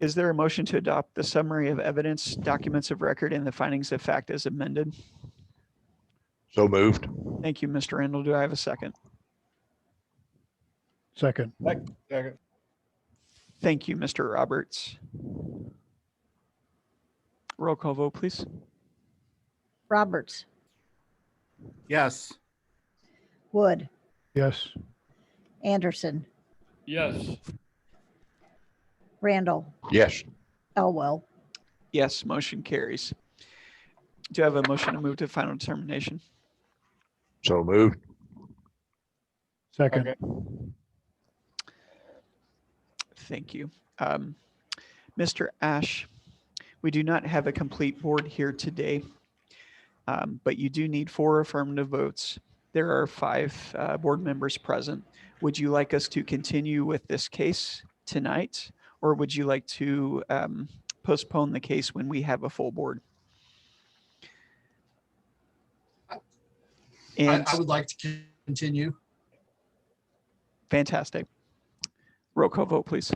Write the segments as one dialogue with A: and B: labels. A: Is there a motion to adopt the summary of evidence, documents of record, and the findings of fact as amended?
B: So moved.
A: Thank you, Mr. Randall. Do I have a second?
C: Second,
D: Second.
A: Thank you, Mr. Roberts. Roll call vote, please.
E: Roberts,
D: Yes.
E: Wood,
C: yes,
E: Anderson,
F: yes,
E: Randall,
B: Yes.
E: Elwell.
A: Yes, motion carries. Do I have a motion to move to final determination?
B: So moved.
C: second,
A: Thank you. Um, Mr. Ash, we do not have a complete board here today, um, but you do need four affirmative votes. There are five uh, board members present. Would you like us to continue with this case tonight? Or would you like to um, postpone the case when we have a full board?
G: I,
A: And
G: I would like to continue.
A: fantastic. Roll call vote, please.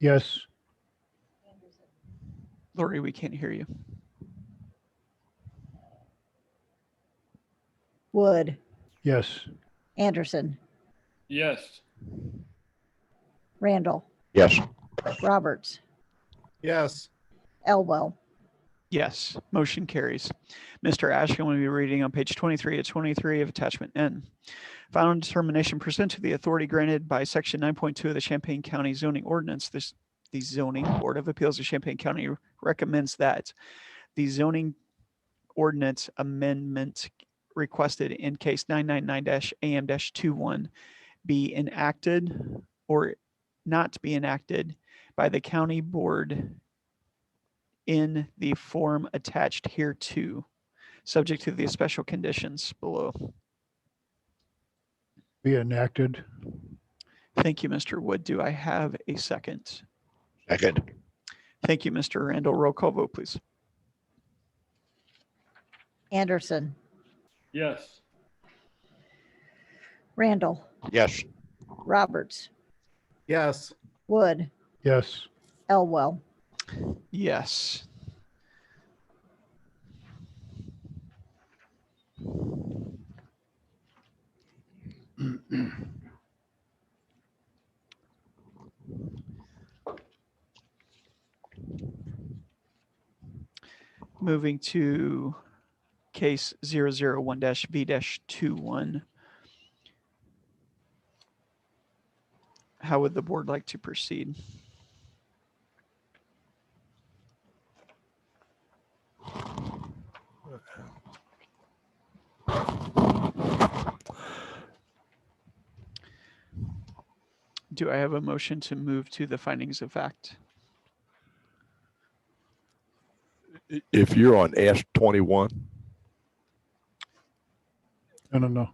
C: yes,
A: Lori, we can't hear you.
E: Wood,
C: yes,
E: Anderson,
F: yes,
E: Randall,
B: Yes.
E: Roberts,
D: Yes.
E: Elwell.
A: Yes, motion carries. Mr. Ash, I'm going to be reading on page 23 to 23 of attachment N. Final determination pursuant to the authority granted by section 9.2 of the Champaign County zoning ordinance, this, the zoning board of appeals of Champaign County recommends that the zoning ordinance amendment requested in case 999-AM-21 be enacted or not be enacted by the county board in the form attached here to, subject to the special conditions below.
C: be enacted,
A: Thank you, Mr. Wood. Do I have a second?
B: Second.
A: Thank you, Mr. Randall. Roll call vote, please.
E: Anderson,
F: yes,
E: Randall,
B: Yes.
E: Roberts,
D: Yes.
E: Wood,
C: yes,
E: Elwell.
A: Yes. Moving to case 001-V-21. How would the board like to proceed? Do I have a motion to move to the findings of fact?
H: I- if you're on S twenty-one,
C: no, no, no,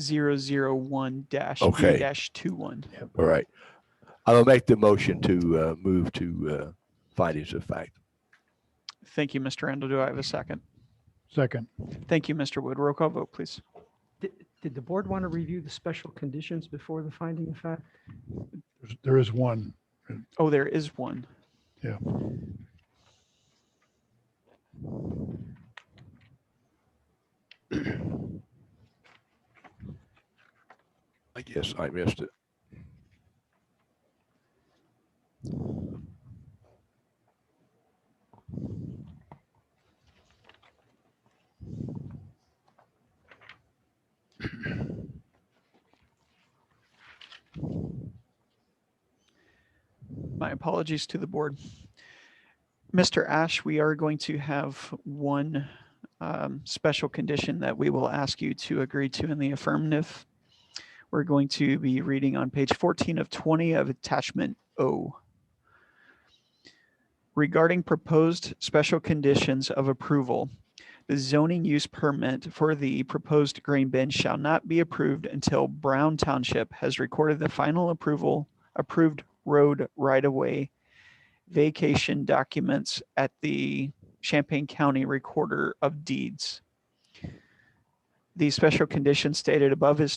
A: Zero zero one dash
H: Okay.
A: dash two one.
H: all right. I'll make the motion to uh, move to uh, findings of fact.
A: Thank you, Mr. Randall. Do I have a second?
C: second,
A: Thank you, Mr. Wood. Roll call vote, please.
I: Did, did the board want to review the special conditions before the finding of fact?
C: There's- there is one,
A: Oh, there is one.
C: Yeah.
H: I guess I missed it.
A: My apologies to the board. Mr. Ash, we are going to have one um, special condition that we will ask you to agree to in the affirmative. We're going to be reading on page 14 of 20 of attachment O. Regarding proposed special conditions of approval, the zoning use permit for the proposed grain bin shall not be approved until Brown Township has recorded the final approval, approved road right-of-way vacation documents at the Champaign County Recorder of Deeds. The special condition stated above is